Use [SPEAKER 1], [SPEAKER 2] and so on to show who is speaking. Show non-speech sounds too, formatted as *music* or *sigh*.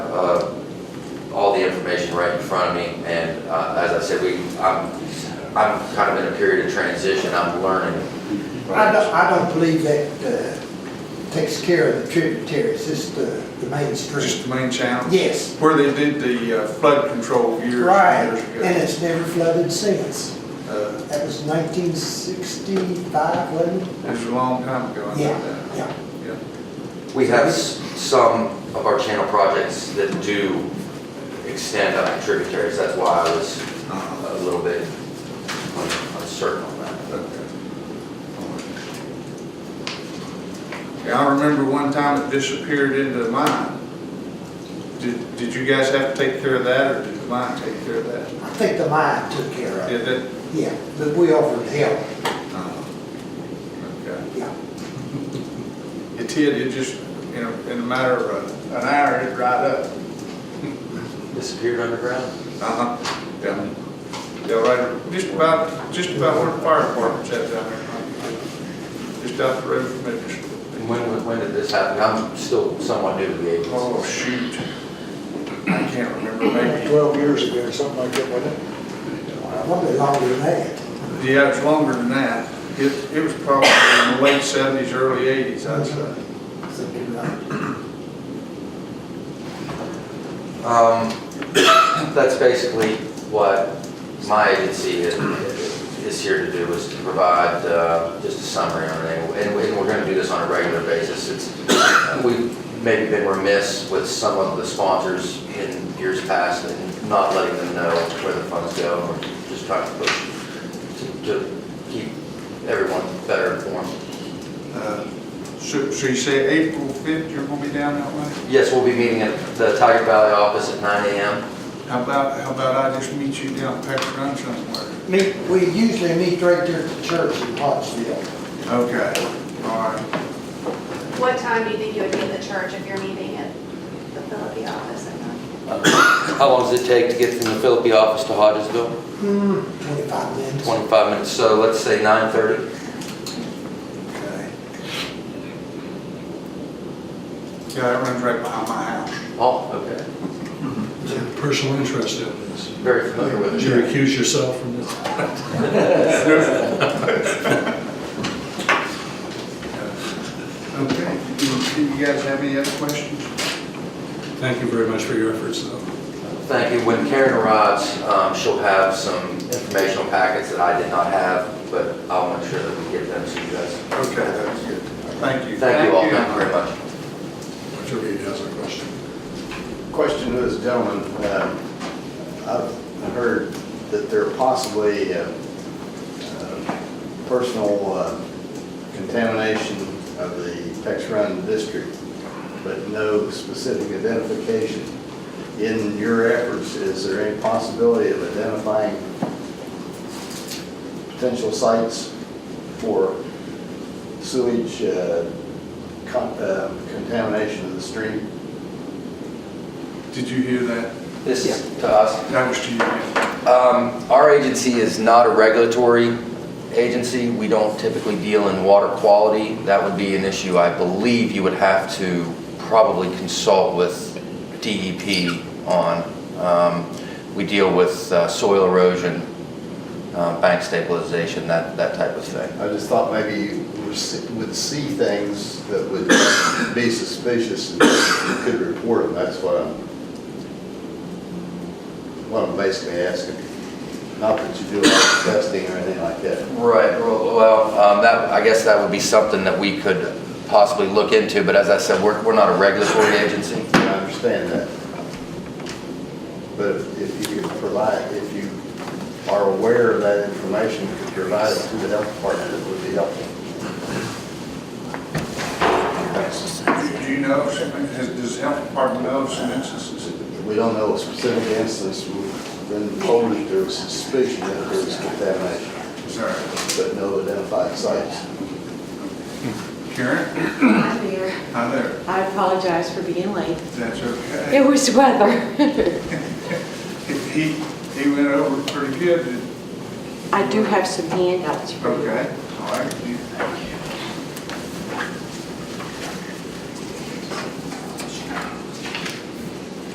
[SPEAKER 1] uh, all the information right in front of me, and uh, as I said, we, I'm, I'm kind of in a period of transition, I'm learning.
[SPEAKER 2] I don't, I don't believe that uh, takes care of the tributaries, it's the, the main
[SPEAKER 3] Just
[SPEAKER 2] stream.
[SPEAKER 3] the main channel?
[SPEAKER 2] Yes,
[SPEAKER 3] Where they did the uh, flood control years
[SPEAKER 2] right,
[SPEAKER 3] and years
[SPEAKER 2] and
[SPEAKER 3] ago.
[SPEAKER 2] it's never flooded since.
[SPEAKER 3] Uh,
[SPEAKER 2] That was nineteen sixty-five, wasn't it?
[SPEAKER 3] It was a long time ago, I
[SPEAKER 2] Yeah,
[SPEAKER 3] know that.
[SPEAKER 2] yeah.
[SPEAKER 3] Yeah.
[SPEAKER 1] We have s- some of our channel projects that do extend on tributaries, that's why I was
[SPEAKER 3] Uh-huh.
[SPEAKER 1] a little bit un- uncertain on
[SPEAKER 3] Uh,
[SPEAKER 1] that.
[SPEAKER 3] Yeah, I remember one time it disappeared into the mine. Did, did you guys have to take care of that, or did the mine take care of that?
[SPEAKER 2] I think the mine took care of it,
[SPEAKER 3] Did it?
[SPEAKER 2] yeah, but we offered help,
[SPEAKER 3] Uh, Okay.
[SPEAKER 2] yeah.
[SPEAKER 3] It did, it just, in a, in a matter of an hour, it dried up.
[SPEAKER 1] Disappeared underground?
[SPEAKER 3] Uh-huh, yeah. Yeah, right, just about, just about where the fire department's at down there. Just out the road from it.
[SPEAKER 1] And when, when- when did this happen? I'm still somewhat new to the agency.
[SPEAKER 3] Oh, shoot. I can't remember,
[SPEAKER 4] Like
[SPEAKER 3] maybe.
[SPEAKER 4] 12 years ago, or something like that, wasn't it?
[SPEAKER 2] Probably longer than that.
[SPEAKER 3] Yeah, it's longer than that. It, it was probably in the late seventies, early eighties, I'd say.
[SPEAKER 2] Something like-
[SPEAKER 1] Um, *coughs* That's basically what my agency is- is here to do, is to provide uh, just a summary on it. And we- and we're going to do this on a regular basis. It's, we've maybe been remiss with some of the sponsors in years past and not letting them know where the funds go. We're just trying to push, to- to keep everyone better informed.
[SPEAKER 3] Uh, So, so you say April fifth, you're gonna be down that way?
[SPEAKER 1] Yes, we'll be meeting at the Tiger Valley office at 9 AM.
[SPEAKER 3] How about, how about I just meet you down Peck Run somewhere?
[SPEAKER 2] Meet, we usually meet right there at the church in Pottsville.
[SPEAKER 3] Okay, all right.
[SPEAKER 5] What time do you think you would be at the church if you're meeting at the Philippi office at nine?
[SPEAKER 1] How long does it take to get from the Philippi office to Hodgesville?
[SPEAKER 2] Hmm, twenty-five minutes.
[SPEAKER 1] 25 minutes, so let's say 9:30.
[SPEAKER 3] Okay. Yeah, that runs right behind my house.
[SPEAKER 1] Oh, okay. Mm-hmm.
[SPEAKER 4] Is there Personal interest in this.
[SPEAKER 1] Very familiar with
[SPEAKER 4] Did
[SPEAKER 1] it.
[SPEAKER 4] you recuse yourself from this?
[SPEAKER 3] Okay, do do you guys have any other questions?
[SPEAKER 4] Thank you very much for your efforts, though.
[SPEAKER 1] Thank you. When Karen arrives, um, she'll have some informational packets that I did not have, but I'll make sure that we get them to you guys.
[SPEAKER 3] Okay, that's good. Thank you.
[SPEAKER 1] Thank you all, thank you very much.
[SPEAKER 4] Mr. Reed has a question.
[SPEAKER 6] Question to this gentleman. Uh, I've heard that there are possibly uh, uh, personal uh, contamination of the Tex Run district, but no specific identification. In your efforts, is there any possibility of identifying potential sites for sewage uh, con- uh, contamination of the stream?
[SPEAKER 3] Did you hear that?
[SPEAKER 1] This is to us.
[SPEAKER 3] That was to you. yeah.
[SPEAKER 1] Um, Our agency is not a regulatory agency. We don't typically deal in water quality. That would be an issue, I believe you would have to probably consult with DEP on. Um, We deal with uh, soil erosion, uh, bank stabilization, that, that type of thing.
[SPEAKER 6] I just thought maybe you would see- would see things that would be suspicious and you could report them, that's what I'm, what I'm basically asking. Not that you do a lot of testing or anything like that.
[SPEAKER 1] Right, well, um, that, I guess that would be something that we could possibly look into, but as I said, we're, we're not a regulatory agency.
[SPEAKER 6] I understand that. But if- if you could provide, if you are aware of that information, could provide it to the health department, it would be helpful.
[SPEAKER 3] Do you know, if something- has- does the health department know of some instances?
[SPEAKER 6] We don't know a specific instance, we've been told that there was suspicion that there was contamination,
[SPEAKER 3] Sorry.
[SPEAKER 6] but no identified sites.
[SPEAKER 3] Karen,
[SPEAKER 7] I'm here.
[SPEAKER 3] hi there.
[SPEAKER 7] I apologize for being late.
[SPEAKER 3] That's
[SPEAKER 7] It
[SPEAKER 3] okay.
[SPEAKER 7] was weather. *laughs*
[SPEAKER 3] He, he went over pretty good. didn't-
[SPEAKER 7] I do have some handouts for you.
[SPEAKER 3] Okay, all right. Do